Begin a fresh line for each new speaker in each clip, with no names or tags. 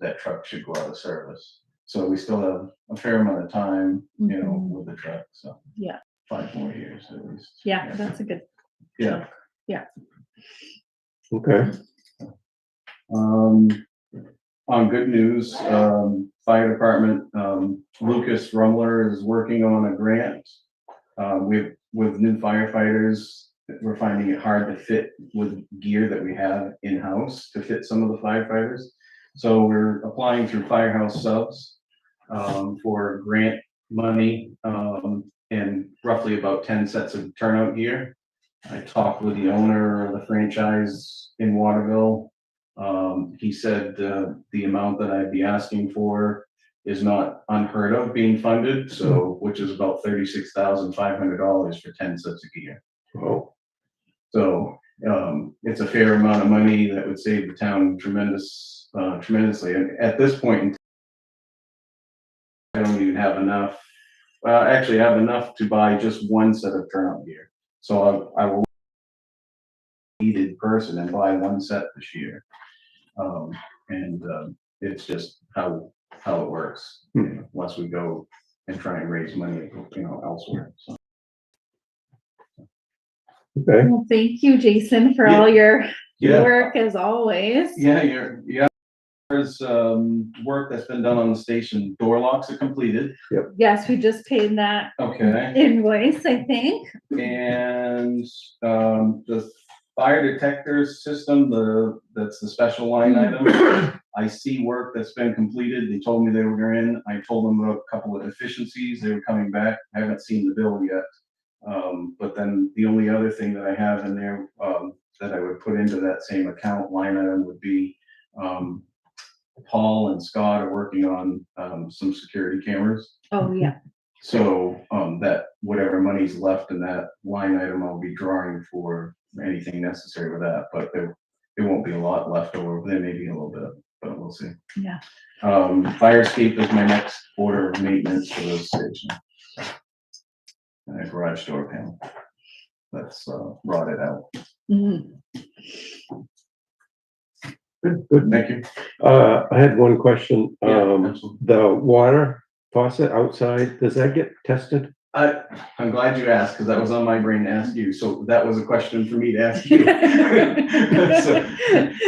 that truck should go out of service. So we still have a fair amount of time, you know,
Mhm.
with the truck, so.
Yeah.
Five more years at least.
Yeah, that's a good.
Yeah.
Okay,
Um, on good news, um, fire department, um, Lucas Rumler is working on a grant. Uh, with, with new firefighters, we're finding it hard to fit with gear that we have in-house to fit some of the firefighters. So we're applying through Firehouse Subs, um, for grant money, um, and roughly about ten sets of turnout gear. I talked with the owner of the franchise in Waterville, um, he said, uh, the amount that I'd be asking for is not unheard of being funded, so, which is about thirty-six thousand five hundred dollars for ten sets of gear.
well,
So, um, it's a fair amount of money that would save the town tremendous, uh, tremendously, and at this point in I don't even have enough, well, actually, I have enough to buy just one set of turnout gear, so I, I will needed person and buy one set this year. Um, and, um, it's just how, how it works, you know, once we go and try and raise money, you know, elsewhere, so.
okay,
Well, thank you, Jason, for
Yeah.
all your work as always.
Yeah, you're, yeah. There's, um, work that's been done on the station. Door locks are completed.
Yes, we just paid that
Okay.
invoice, I think.
And, um, the fire detector system, the, that's the special line item. I see work that's been completed. They told me they were in. I told them about a couple of efficiencies. They were coming back. I haven't seen the bill yet. Um, but then the only other thing that I have in there, um, that I would put into that same account line item would be, um, Paul and Scott are working on, um, some security cameras.
Oh, yeah.
So, um, that, whatever money's left in that line item, I'll be drawing for anything necessary with that, but there, there won't be a lot left over, there may be a little bit, but we'll see.
Yeah.
Um, fire escape is my next order of maintenance for the station. And a garage door panel. That's, uh, rotted out.
Mhm.
good, good.
Thank you.
Uh, I had one question,
Yeah,
um,
absolutely.
the water faucet outside, does that get tested?
I, I'm glad you asked, because that was on my brain to ask you, so that was a question for me to ask you. So,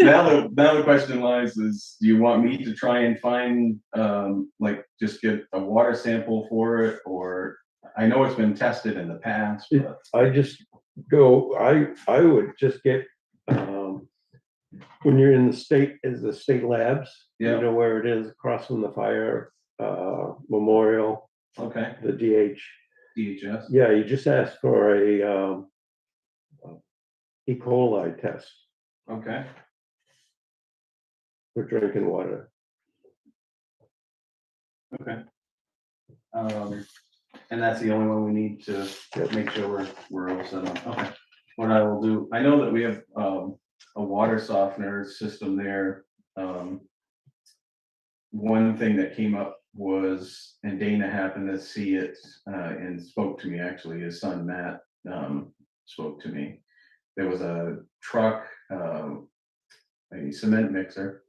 Now, the, now the question lies is, do you want me to try and find, um, like, just get a water sample for it, or? I know it's been tested in the past, but,
I just go, I, I would just get, um, when you're in the state, is the state labs?
Yeah.
You know where it is, across from the fire, uh, memorial,
okay,
the DH.
DHS,
Yeah, you just ask for a, um, E. coli test
okay,
for drinking water.
okay. Um, and that's the only one we need to
Yep.
make sure we're, we're all set up, okay. What I will do, I know that we have, um, a water softener system there, um. One thing that came up was, and Dana happened to see it, uh, and spoke to me, actually, his son Matt, um, spoke to me. There was a truck, um, a cement mixer,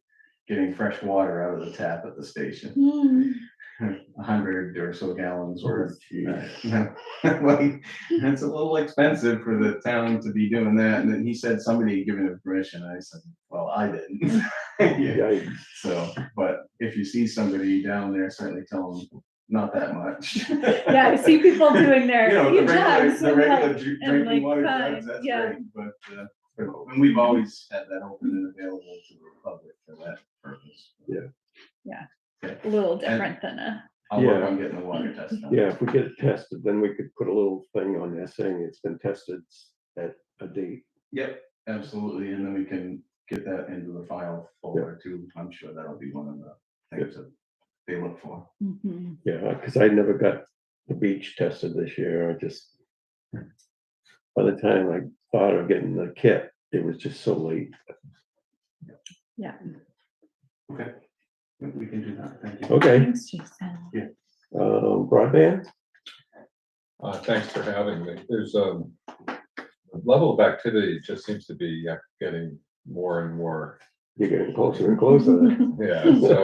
getting fresh water out of the tap at the station,
Hmm.
a hundred or so gallons worth. Right. Like, it's a little expensive for the town to be doing that, and then he said somebody had given him permission, I said, well, I didn't. Yeah,
Yikes.
so, but if you see somebody down there, certainly tell them, not that much.
Yeah, I see people doing their
You know, the
few
regular,
jugs
the
and
regular
like-
ju-
and
drinking
like
water
five,
jugs, that's
yeah.
great, but, uh, but- and we've always had that open and available to the public for that purpose.
a little different than a,
I'll work
Yeah.
on getting the water test done.
Yeah, if we get it tested, then we could put a little thing on there saying it's been tested at a date.
Yep, absolutely, and then we can get that into the file folder too, I'm sure that'll be one of the things that they look for.
Mhm.
Yeah, because Uh, I never got the beach tested this year. I just. By the time I thought of getting the kit, it was just so late.
Okay, we can do that, thank you.
Okay,
thanks, Jason.
um, broadband?
Uh, thanks for having me. There's, um, the level of activity just seems to be uh, getting more and more.
You're getting closer and closer.
Yeah, so